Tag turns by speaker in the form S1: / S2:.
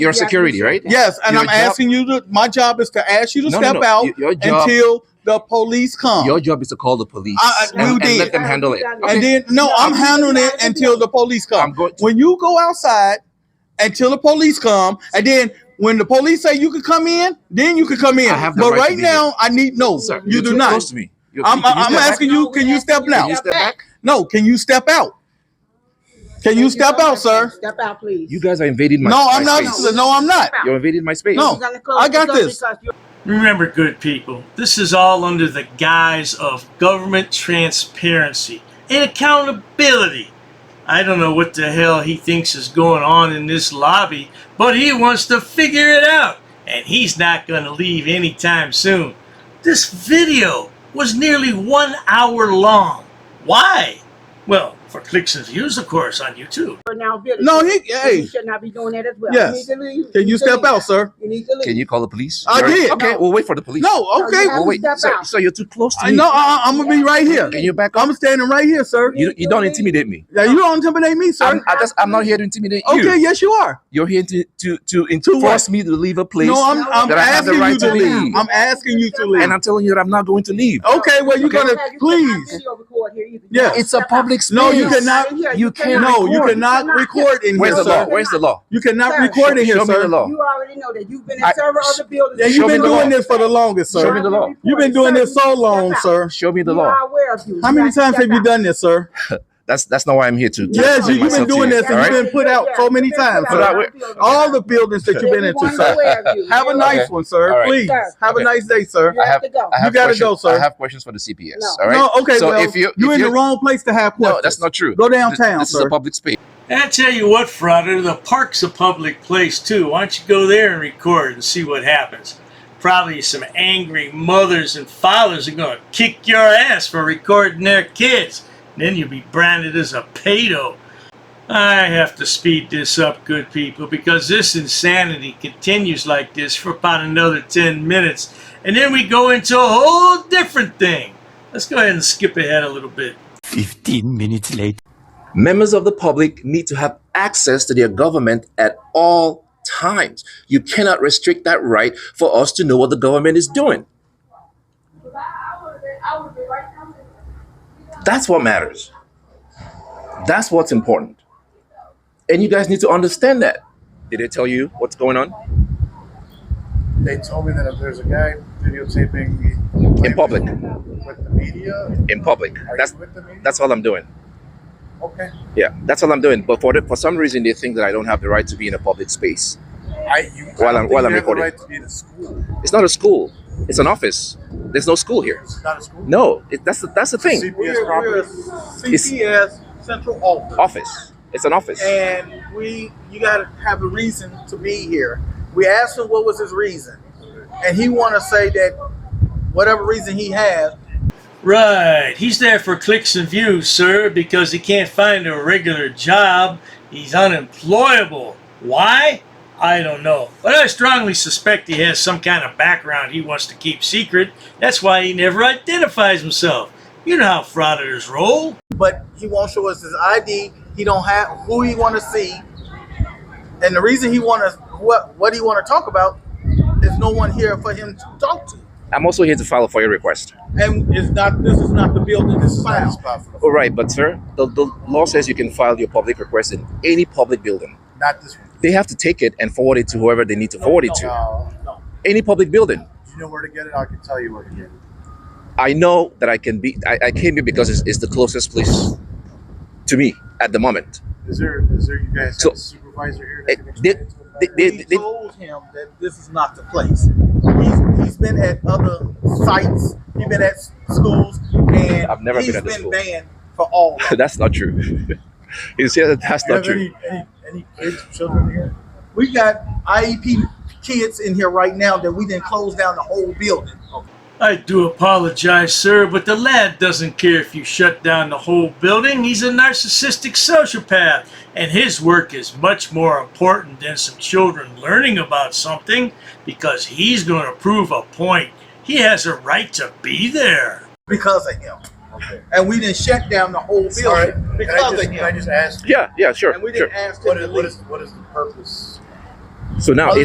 S1: your
S2: Yeah, I
S1: security, right?
S2: appreciate that.
S3: Yes, and
S1: Your
S3: I'm
S1: job-
S3: asking you to. My job is to ask you to
S1: No, no,
S3: step
S1: no.
S3: out
S1: Y- your job-
S3: until the police come.
S1: Your job is to call the police
S3: I- I-
S1: and,
S3: we
S1: and
S3: did.
S1: let them handle it.
S2: And
S3: and
S1: Okay?
S3: then no,
S2: No,
S3: I'm
S2: I'm
S3: handling it
S2: not gonna
S3: until
S2: do
S3: the police come.
S1: I'm going. To,
S3: when you go outside until the police come, and then when the police say you can come in, then you can come in.
S1: I have the
S3: but
S1: right to
S3: right
S1: be
S3: now, I need no.
S1: sir,
S3: you
S1: you're
S3: do
S1: too
S3: not.
S1: Close to me. You-
S3: I'm,
S1: can you
S3: I'm
S1: step back?
S3: asking you. Can you step
S1: Can
S3: now?
S1: you step back?
S3: No. Can you step out? Can you step out, sir?
S2: Step out, please.
S1: You guys are invading my.
S3: No,
S1: my
S3: I'm not.
S1: space.
S2: No.
S3: No, I'm not.
S1: You're invading my space.
S3: No. I got this.
S4: Remember, good people, this is all under the guise of government transparency and accountability. I don't know what the hell he thinks is going on in this lobby, but he wants to figure it out, and he's not going to leave anytime soon. This video was nearly one hour long. Why? Well, for clicks and views, of course, on YouTube.
S3: No, he.
S2: Hey.
S3: Hey,
S2: You should not be doing that as well.
S3: Yes.
S2: You need to leave.
S3: can you
S2: need to
S3: step
S2: leave.
S3: out, sir?
S2: You need to leave.
S1: Can you call the police?
S3: I
S1: You're-
S3: did.
S1: Okay,
S2: No.
S1: we'll wait for the police.
S3: No. Okay.
S2: No,
S1: We'll wait.
S2: Step
S1: Sir,
S2: out.
S1: so you're too close to
S3: I
S1: me.
S3: know. I, I'm gonna be right here.
S1: Can you back up?
S3: I'm standing right here, sir.
S1: You, you don't intimidate me.
S3: Now you don't intimidate me,
S1: I'm,
S3: sir.
S1: I just, I'm not here to intimidate you.
S3: Okay. Yes, you are.
S1: You're here to to to, in-
S3: To what?
S1: force me to leave a place.
S3: No, I'm. I'm
S1: That I have the
S3: asking you
S1: right
S3: to
S1: to
S3: leave.
S1: leave.
S3: I'm asking you to leave.
S1: and I'm telling you that I'm not going to leave.
S3: Okay, well, you're
S2: You
S3: gonna
S2: don't have- you cannot
S3: please.
S2: video record here either. You
S3: Yeah.
S2: have to
S1: It's a
S2: step out.
S1: public space.
S3: No, you
S2: Yes.
S3: cannot.
S2: Here,
S1: you
S2: cannot
S3: No, you
S2: record.
S3: cannot record in
S1: Where's
S3: here,
S1: the law?
S3: sir.
S1: Where's the law?
S3: You cannot
S2: Sir.
S3: record in here,
S1: Show me the
S3: sir.
S1: law.
S2: You already know that. You've been
S1: I-
S2: a server of the building.
S3: Yeah,
S1: Show
S3: you've
S1: me
S3: been
S1: the
S3: doing
S1: law.
S3: this for the longest,
S1: Show me
S3: sir.
S1: the law.
S3: You've been doing this so long, sir.
S1: Show me the
S2: You
S1: law.
S2: are aware of you.
S3: How many times have you done this, sir?
S1: That's that's not why I'm here to. to
S3: Yes,
S1: explain
S3: you- you've been
S1: myself to
S3: doing
S1: you,
S3: this and
S1: all
S3: you've
S1: right?
S3: been put out so many times,
S1: sir.
S3: All the buildings that you've been into, sir. Have a nice one,
S1: All
S3: sir.
S1: right.
S3: Please
S2: Sir.
S3: have a
S1: Okay.
S3: nice day, sir.
S2: You
S1: I
S2: have
S1: have-
S2: to go.
S1: I have
S3: You gotta
S1: questions-
S3: go, sir.
S1: I have questions for the CPS.
S2: No.
S1: All right.
S3: No, okay,
S1: So
S3: well,
S1: if you
S3: you're
S1: if
S3: in the
S1: you're-
S3: wrong place to have questions.
S1: no, that's not true.
S3: Go
S1: Th-
S3: downtown,
S1: This is
S3: sir.
S1: a public space.
S4: I tell you what, Frogger, the park's a public place too. Why don't you go there and record and see what happens? Probably some angry mothers and fathers are going to kick your ass for recording their kids. Then you'll be branded as a pedo. I have to speed this up, good people, because this insanity continues like this for about another 10 minutes. And then we go into a whole different thing. Let's go ahead and skip ahead a little bit.
S5: 15 minutes later.
S1: Members of the public need to have access to their government at all times. You cannot restrict that right for us to know what the government is doing. That's what matters. That's what's important. And you guys need to understand that. Did they tell you what's going on?
S6: They told me that if there's a guy videotaping me
S1: In public.
S6: with the media,
S1: In public.
S6: are
S1: That's
S6: you with the media?
S1: that's all I'm doing.
S6: okay.
S1: Yeah, that's all I'm doing. But for the, for some reason, they think that I don't have the right to be in a public space.
S6: I you
S1: While
S6: I don't
S1: I'm-
S6: think
S1: while
S6: you
S1: I'm
S6: have
S1: recording.
S6: the right to be in a school.
S1: It's not a school. It's an office. There's no school here.
S6: It's not a school.
S1: No, it, that's the, that's the thing.
S6: CPS property.
S3: CPS Central Office.
S1: Office. It's an office.
S3: and we you gotta have a reason to be here. We asked him what was his reason, and he want to say that whatever reason he has.
S4: Right. He's there for clicks and views, sir, because he can't find a regular job. He's unemployable. Why? I don't know. But I strongly suspect he has some kind of background he wants to keep secret. That's why he never identifies himself. You know how frauditors roll.
S3: But he won't show us his ID. He don't have who he want to see, and the reason he want to what what he want to talk about is no one here for him to talk to.
S1: I'm also here to file for your request.
S3: And it's not this is not the building. This is
S6: Not a
S3: file.
S6: spot for the-
S1: All right, but sir, the, the law says you can file your public request in any public building.
S6: Not this one.
S1: They have to take it and forward it to whoever they need to forward it to.
S6: No.
S1: Any public building.
S6: Do you know where to get it? I can tell you where to get it.
S1: I know that I can be. I, I came here because it's, it's the closest place to me at the moment.
S6: Is there is there you guys
S1: So-
S6: have a supervisor here
S1: Eh,
S6: that can
S1: they-
S6: explain to them
S1: they-
S6: better?
S1: they-
S3: We told him that this is not the place. He's, he's been at other sites. He's been at s- schools, and
S1: I've never been
S3: he's
S1: at the
S3: been
S1: school.
S3: banned for all. of it.
S1: that's not true. you see, that- that's
S6: Do you
S1: not
S6: have
S1: true.
S6: any, any any kids children here?
S3: We got IEP kids in here right now that we didn't close down the whole building.
S4: I do apologize, sir, but the lad doesn't care if you shut down the whole building. He's a narcissistic sociopath, and his work is much more important than some children learning about something because he's going to prove a point. He has a right to be there.
S3: because of him. And we didn't shut down the whole building
S6: All right. Can I
S3: because
S6: just,
S3: of
S6: can I
S3: him.
S6: just ask
S1: Yeah, yeah, sure.
S3: And we
S1: sure.
S3: didn't ask him
S6: what
S3: to
S6: is what
S3: leave.
S6: is what is the purpose
S7: So now
S1: Other